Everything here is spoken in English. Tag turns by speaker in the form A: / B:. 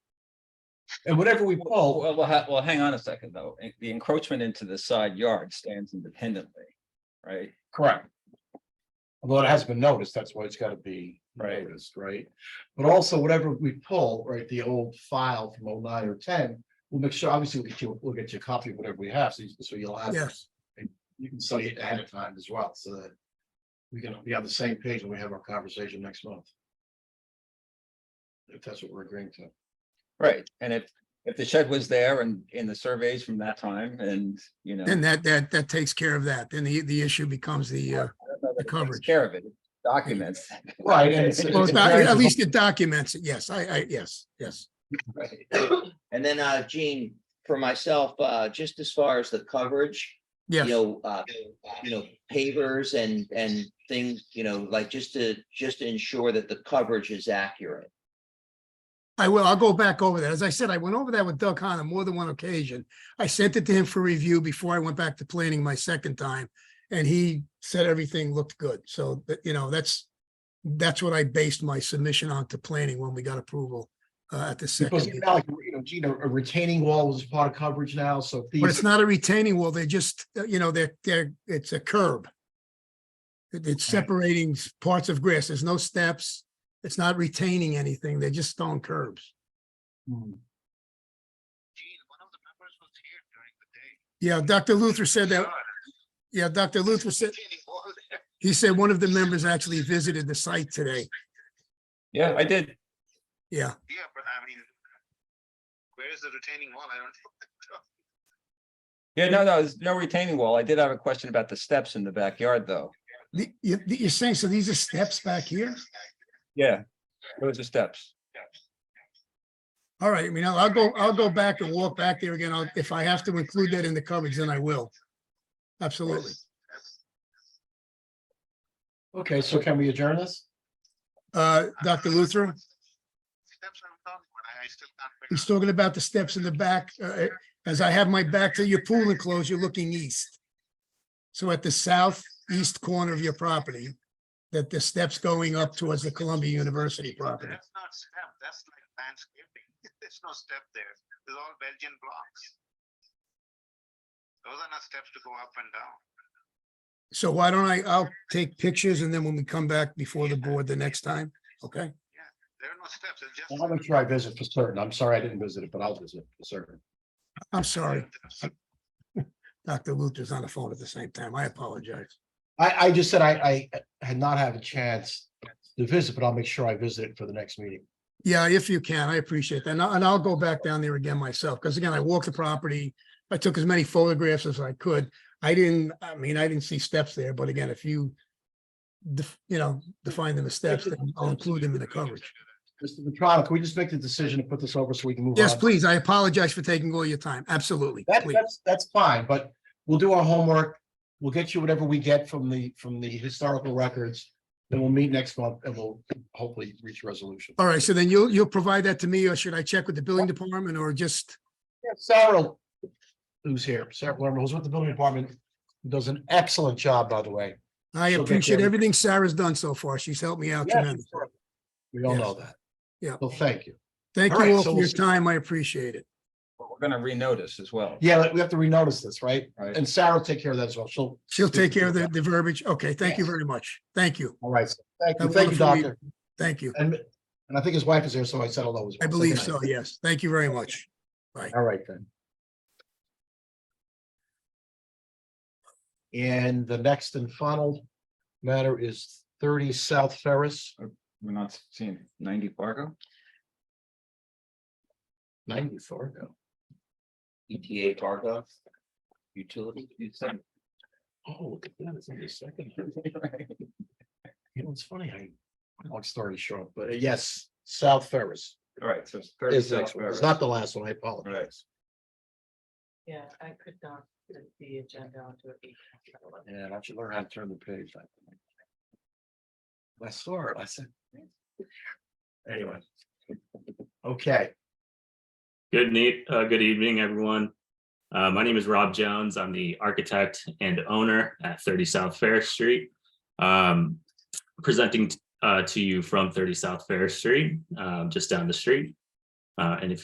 A: And whatever we pull,
B: Well, well, ha- well, hang on a second though. En- The encroachment into the side yard stands independently, right?
A: correct. Although it hasn't been noticed, that's why it's gotta be
B: Right.
A: noticed, right? But also whatever we pull, right, the old file from 09 or ten, we'll make sure, obviously, we'll get you, we'll get you a copy of whatever we have, so you- so you'll have.
C: Yes.
A: and You can study it ahead of time as well, so that we can be on the same page when we have our conversation next month. If that's what we're agreeing to.
B: Right, and if, if the shed was there and in the surveys from that time and, you know.
C: Then that, that, that takes care of that. Then the, the issue becomes the, uh,
B: I don't know that it takes
C: coverage.
B: Care of it, documents.
A: Right, and it's-
C: well,
A: it's-
C: it's not- at least it documents it. Yes, I, I, yes, yes.
B: Right.
D: And then, uh, Gene, for myself, uh, just as far as the coverage, you
C: Yes,
D: know, uh, you know, pavers and, and things, you know, like just to, just to ensure that the coverage is accurate.
C: I will. I'll go back over that. As I said, I went over that with Doug Hahn on more than one occasion. I sent it to him for review before I went back to planning my second time. And he said everything looked good. So, but, you know, that's, that's what I based my submission on to planning when we got approval, uh, at the second.
A: Because it's
C: meeting.
A: not like, you know, Gina, a retaining wall is part of coverage now, so.
C: But it's not a retaining wall. They're just, uh, you know, they're, they're, it's a curb. It- It's
A: Okay.
C: separating s- parts of grass. There's no steps. It's not retaining anything. They're just stone curbs. Yeah, Dr. Luther said that. Yeah, Dr. Luther said, he said one of the members actually visited the site today.
B: Yeah, I did.
C: Yeah,
E: Yeah, but I mean, where is the retaining wall? I don't.
B: Yeah, no, no, there's no retaining wall. I did have a question about the steps in the backyard though.
C: The- you, you're saying, so these are steps back here?
B: Yeah, those are steps.
C: All right, I mean, I'll I'll go, I'll go back and walk back there again. I'll- If I have to include that in the coverage, then I will. Absolutely.
A: Okay, so can we adjourn this?
C: Uh, Dr. Luther?
E: Steps I'm talking about, I I still can't. figure
C: He's
E: out.
C: talking about the steps in the back. uh, As I have my back to your pool enclosure looking east. So at the southeast corner of your property, that the steps going up towards the Columbia University property.
E: That's not step, that's like landscaping. There's no step there. It's all Belgian blocks. Those are not steps to go up and down.
C: So why don't I, I'll take pictures and then when we come back before the board the next time, okay?
E: There are no steps, it's just.
A: I'll make sure I visit for certain. I'm sorry I didn't visit it, but I'll visit for certain.
C: I'm sorry, Dr. Luther's on the phone at the same time. I apologize.
A: I, I just said I, I had not had a chance to visit, but I'll make sure I visit it for the next meeting.
C: Yeah, if you can, I appreciate that. And I- and I'll go back down there again myself, because again, I walked the property. I took as many photographs as I could. I didn't, I mean, I didn't see steps there, but again, if you def- you know, define them as steps, then I'll include them in the coverage.
A: Mr. Vetrano, can we just make the decision to put this over so we can move on?
C: Yes, please. I apologize for taking all your time. Absolutely.
A: That,
C: please.
A: that's, that's fine, but we'll do our homework. We'll get you whatever we get from the, from the historical records. Then we'll meet next month and we'll hopefully reach a resolution.
C: All right, so then you'll, you'll provide that to me, or should I check with the building department or just,
A: Sarah, who's here, Sarah Lerman, who's with the building department, who does an excellent job, by the way.
C: I
A: She'll get
C: appreciate
A: them.
C: everything Sarah's done so far. She's helped me out tremendously.
A: We all know that.
C: Yeah.
A: Well, thank you.
C: Thank
A: All right,
C: you all
A: so
C: for
A: we'll
C: your
A: see-
C: time. I appreciate it.
B: But we're gonna renotice as well.
A: Yeah, like, we have to renotice this, right?
B: Right.
A: And Sarah will take care of that as well. She'll,
C: She'll take care of the,
A: Yeah.
C: the verbiage. Okay, thank you
A: Yes.
C: very much. Thank you.
A: all right. so Thank you,
C: Have a
A: thank you,
C: wonderful
A: doctor.
C: Thank you.
A: And, and I think his wife is here, so I said hello as well.
C: I
A: So
C: believe
A: good night.
C: so, yes. Thank you very much.
A: All right then. And the next and final matter is thirty South Ferris,
B: We're not seeing ninety Fargo.
A: ninety Fargo.
D: ETA Fargo, utility.
B: You said-
A: Oh, look at that, it's only a second. You know, it's funny, I, long story short, but uh, yes, South Ferris
B: All right, so it's
A: is the
B: 36
A: next one. It's
B: Fargo.
A: not the last one, I apologize.
F: Yeah, I could not put the agenda onto a week.
A: And I should learn how to turn the page. I think. I saw it, I said. Anyway. Okay.
G: Good neat, uh, good evening, everyone. Uh, my name is Rob Jones. I'm the architect and owner at thirty South Fair Street. Um, presenting, uh, to you from thirty South Fair Street, um, just down the street. Uh, and if